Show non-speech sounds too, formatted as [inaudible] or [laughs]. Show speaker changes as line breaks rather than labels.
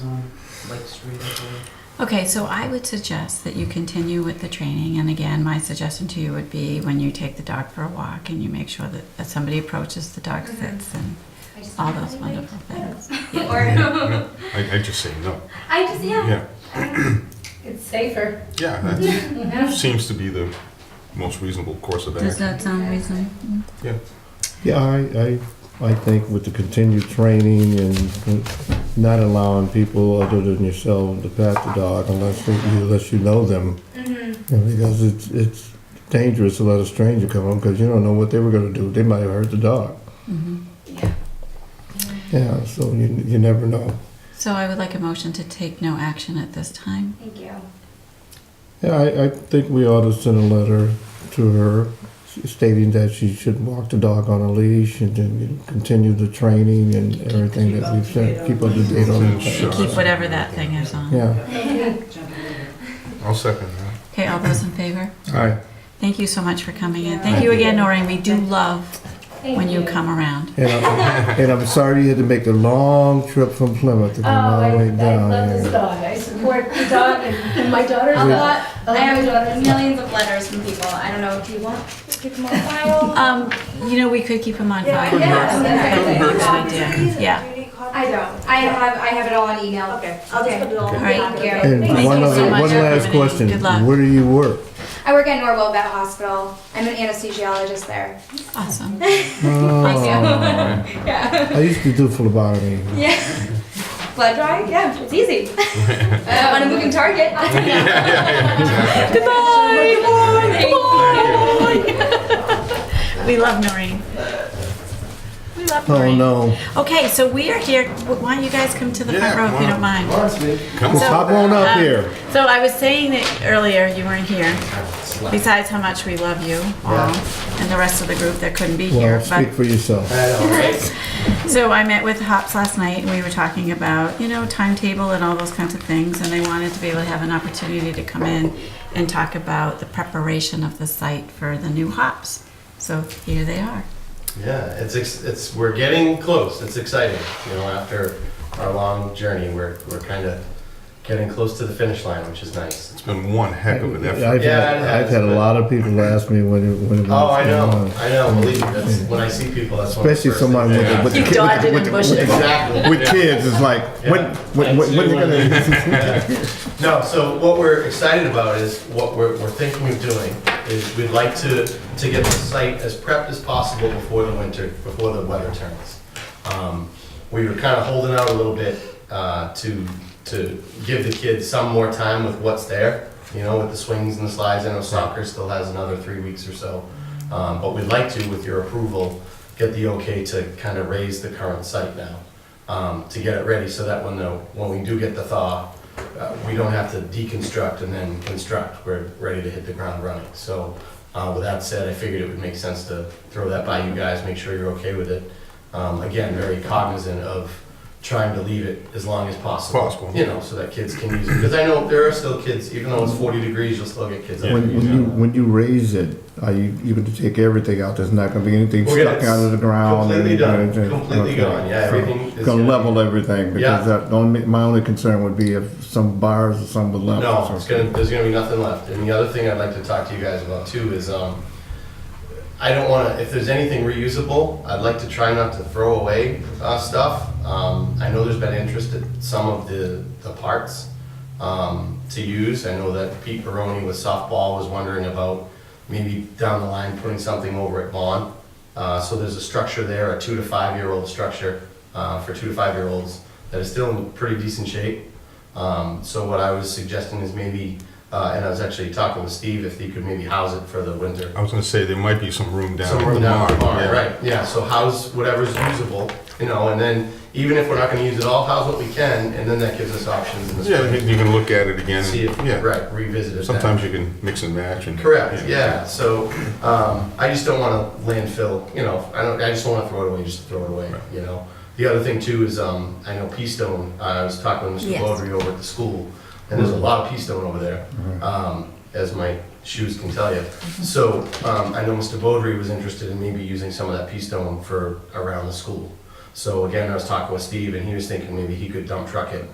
Lake Street, I believe.
Okay, so I would suggest that you continue with the training, and again, my suggestion to you would be when you take the dog for a walk and you make sure that, that somebody approaches the dog
Mhm.
sits and
I just
all
don't have
those
anybody
wonderful
to play
things.
with.
Yeah.
[laughs] Or,
I, I just say no.
I just, yeah.
Yeah,
It's safer.
yeah, that seems to be the most reasonable course of
Does
action.
that sound reasonable?
Yeah,
Yeah, I, I, I think with the continued training and not allowing people other than yourself to pat the dog unless you, unless you know them.
Mm-hmm.
you know, Because it's, it's dangerous to let a stranger come home because you don't know what they were gonna do. They might have hurt the dog.
Mhm.
Yeah.
Yeah, so you, you never know.
So I would like a motion to take no action at this time.
Thank you.
Yeah, I, I think we ought to send a letter to her stating that she should walk the dog on a leash and then continue the training and everything that we've said. Keep up to date on
Sure.
it.
Keep whatever that thing is on.
Yeah.
I'll second that.
Okay, all those in favor?
All right.
Thank you so much for coming in. Thank
Thank
you
you.
again, Noreen. We do love
Thank
when you come around.
And I'm, and I'm sorry you had to make the long trip from Plymouth to
Oh,
come all
I,
the
I
way down.
love this
here.
dog. I support the dog and, and my daughter's
I'll
We-
dog.
lot. I have millions of letters from people. I don't know if you want to keep them on file.
Um, you know, we could keep them on file.
Couldn't hurt.
yeah,
But we
Couldn't hurt.
usually do. Yeah.
I don't. I have, I have it all on email.
Okay, I'll just put it all.
Okay.
in the
Alright.
pocket, okay?
And
Thank
one
you so
other,
much
one
for
last
coming in.
question.
Good luck.
Where do you work?
I work at Norwell Vet Hospital. I'm an anesthesiologist there.
Awesome.
Oh,
Yeah.
I used to do phlebotomy.
Yeah. Blood drawing? Yeah, it's easy. uh, on a moving target. I'll take that. Goodbye. Goodbye. Goodbye.
We love Noreen. We love
Oh,
Noreen.
no.
Okay, so we are here. Why don't you guys come to the
Yeah,
front row if you
why
don't mind?
Come
Just
on.
hop on up
Um,
here.
So I was saying that earlier, you weren't here. Besides how much we love you all and the rest of the group that couldn't be here.
Well,
but-
speak for yourself.
So I met with Hops last night and we were talking about, you know, timetable and all those kinds of things. And they wanted to be able to have an opportunity to come in and talk about the preparation of the site for the new hops. So here they are.
Yeah, it's ex- it's we're getting close. It's exciting, you know. After our long journey, we're we're kind of getting close to the finish line, which is nice.
It's been one heck of an effort.
I've
Yeah,
had,
it
I've
has,
had a
but-
lot of people ask me when it, when it was
Oh, I know,
going on.
I know. Believe me, that's when I see people. That's one of the
Especially
first
someone
things
with,
I
the- with, the
You
kid-
dodge it in
with, the- with,
bushes.
the-
ask. exactly
with
yeah.
kids, it's like, when,
Yeah.
when, when, when are
Absolutely.
you gonna? [laughs]
No, so what we're excited about is what we're, we're thinking of doing is we'd like to, to get the site as prepped as possible before the winter, before the weather turns. Um, We were kind of holding out a little bit uh, to, to give the kids some more time with what's there, you know, with the swings and the slides. I know soccer still has another three weeks or so. Um, But we'd like to, with your approval, get the okay to kind of raise the current site now, um, to get it ready so that when the, when we do get the thaw, uh, we don't have to deconstruct and then construct. We're ready to hit the ground running. So uh, with that said, I figured it would make sense to throw that by you guys, make sure you're okay with it. Um, Again, very cognizant of trying to leave it as long as possible.
Possible.
You know, so that kids can use it. Because I know there are still kids, even though it's 40 degrees, you'll still get kids. out there
When, when
using
you,
it.
when you raise it, are you, you gonna take everything out? There's not gonna be anything
We're gonna-
stuck out of the ground?
completely done.
anything-
Completely
okay.
gone. Yeah,
So,
everything is
Gonna
gonna
level everything, because
Yeah.
that, the only, my only concern would be if some bars or some would level.
No, it's gonna, there's gonna be nothing left. And the other thing I'd like to talk to you guys about too is, um, I don't wanna, if there's anything reusable, I'd like to try not to throw away, uh, stuff. Um, I know there's been interest in some of the, the parts, um, to use. I know that Pete Baroni with softball was wondering about maybe down the line putting something over at Vaughn. Uh, so there's a structure there, a two to five-year-old structure, uh, for two to five-year-olds that is still in pretty decent shape. Um, so what I was suggesting is maybe, uh, and I was actually talking with Steve if he could maybe house it for the winter.
I was gonna say there might be some room down
Somewhere
at the
down the
barn,
barn,
yeah.
right? Yeah. So house whatever's usable, you know, and then even if we're not going to use it all, house what we can, and then that gives us options in the spring.
Yeah, you you can look at it again.
See if
Yeah.
right revisit it. then.
Sometimes you can mix and match and.
Correct, yeah, so, um, I just don't wanna landfill, you know, I don't, I just don't wanna throw it away, just throw it away, you know? The other thing too is, um, I know Peastone, uh, I was talking with Mr.
Yes.
Baldry over at the school, and there's a lot of Peastone over there,
Mm-hmm.
um, as my shoes can tell you. So, um, I know Mr. Baldry was interested in maybe using some of that Peastone for around the school. So again, I was talking with Steve, and he was thinking maybe he could dump truck it